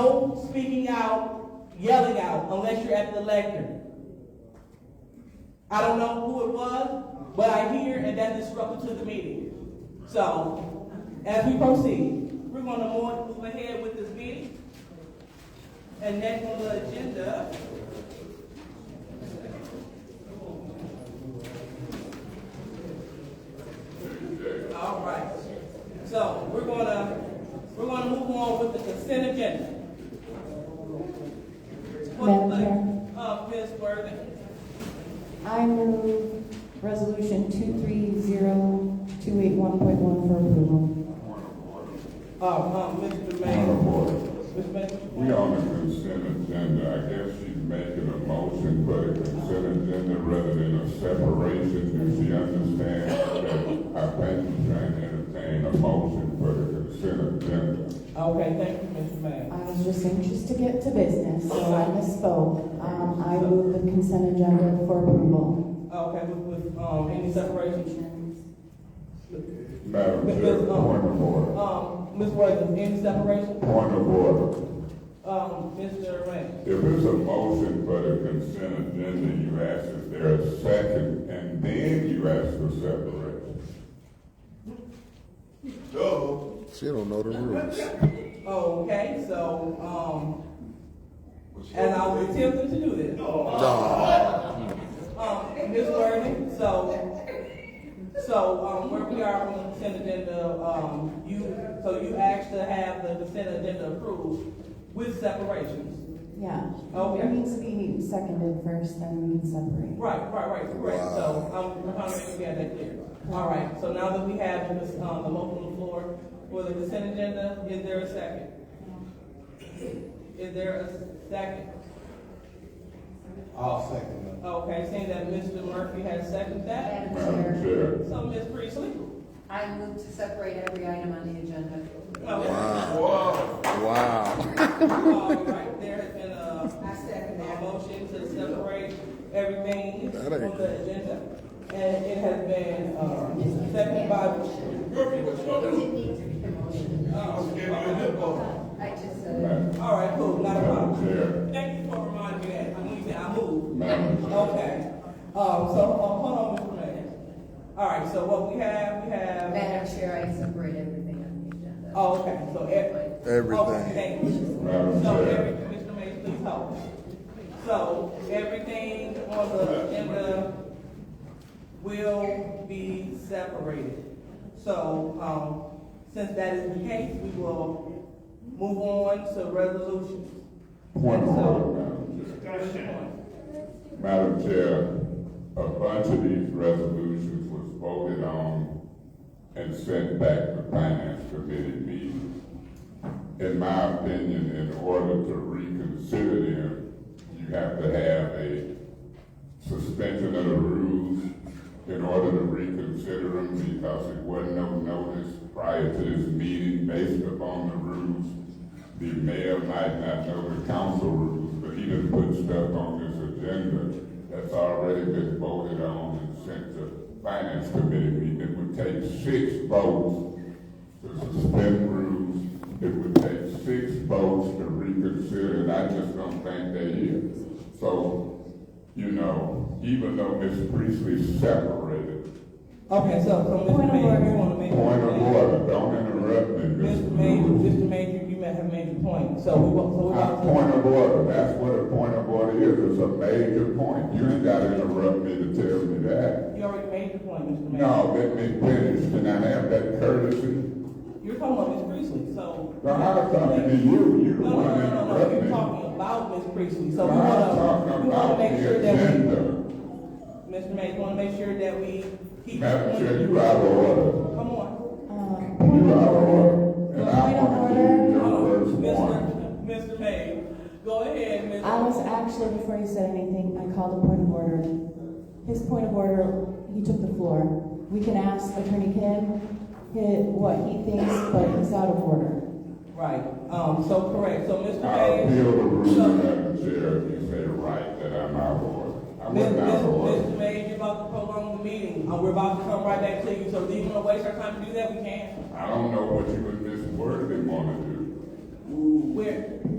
no speaking out, yelling out, unless you're at the lectern. I don't know who it was, but I hear and that disrupted to the meeting. So, as we proceed, we're gonna mo- move ahead with this meeting. And next on the agenda. All right, so we're gonna, we're gonna move on with the consent agenda. Madam Chair. Uh, Ms. Worthing. I move resolution two three zero two eight one point one for approval. Oh, um, Mr. Point of Mayor. order. Mr. We Mayor. on the consent agenda, I guess she's making a motion for the consent agenda rather than a separation. Does she understand that I think she's trying to entertain a motion for the consent agenda? Okay, thank you, Mr. Mayor. I was just anxious to get to business, so I misspoke. Um, I move the consent agenda for approval. Uh, Okay, with, with, um, any separation? Madam Chair, point of order. Um, Ms. Worthing, any separation? Point of order. Um, Mr. Ray. If it's a motion for the consent agenda, you ask if there is second, and then you ask for separation. So, She don't know the rules. Okay, so, um, and I was attempting to do this. Nah. Um, Ms. Worthing, so, so, um, where we are on the consent agenda, um, you, so you asked to have the consent agenda approved with separations. Yeah. Okay. It needs to be seconded first, then we can separate. Right, right, right, correct, so, I'm, I'm trying to make we have that clear. All right, so now that we have this, um, the motion on the floor for the consent agenda, is there a second? Is there a second? I'll second that. Okay, seeing that Mr. Murphy has seconded that, Madam Madam Chair, Chair. so Ms. Priestley? I move to separate every item on the agenda. Okay. Wow. All right, there has been a, I second a motion to separate everything That on ain't the agenda. And it has been, um, seconded by, I just said. Madam uh, all right, cool, not a problem. Madam Chair. Thank you for reminding me that, I moved, I moved. Madam Chair. Okay, um, so, uh, hold on, Mr. Mayor. All right, so what we have, we have. Madam Chair, I separate everything on the agenda. Oh, okay, so every. Everything. Okay, thank you. Madam So Chair. every, Mr. Mayor, please hold. So everything on the agenda will be separated. So, um, since that is the case, we will move on to resolutions. Point of And so- order, Madam Chair. Madam Chair, a bunch of these resolutions was voted on and sent back to Finance Committee meetings. In my opinion, in order to reconsider them, you have to have a suspension of the rules in order to reconsider them because it wasn't no notice prior to this meeting based upon the rules. The mayor might not know the council rules, but he didn't put stuff on this agenda that's already been voted on and sent to finance committee meeting. It would take six votes to suspend rules. It would take six votes to reconsider, and I just don't think they here. So, you know, even though Ms. Priestley separated, Okay, so, so Mr. Point of Mayor, order. you wanna make. point of order, don't interrupt me, Ms. Mr. Mayor, Lewis. Mr. Mayor, you may have made your point, so we will, so we Uh, will. Point of order, that's what a point of order is, it's a major point. You ain't gotta interrupt me to tell me that. You already made your point, Mr. Mayor. No, let me finish, can I have that courtesy? You're talking about Ms. Priestley, so. No, I'm talking to you, you No, no, the no, no, one no, you're interrupting. talking about Ms. Priestley, so we I'm wanna, talking we wanna about make the sure that we, agenda. Mr. Mayor, we wanna make sure that we keep. Madam Chair, you out of order. Come on. Um, point You of out of order. order. And Point I of want to give you order. your first warning. Mr. Mr. Mayor, go ahead, Ms. I was actually, before you said anything, I called a point of order. His point of order, he took the floor. We can ask Attorney Kim hi- what he thinks, but he's out of order. Right, um, so correct, so Mr. Mayor. I appeal the So- ruling, Madam Chair, if you say right, that I'm out of order. I Mr. wasn't out of order. Mr. Mayor, you're about to prolong the meeting, uh, we're about to come right back to you, so do you wanna waste our time to do that? We can. I don't know what you and Ms. Worthy want to do. We're,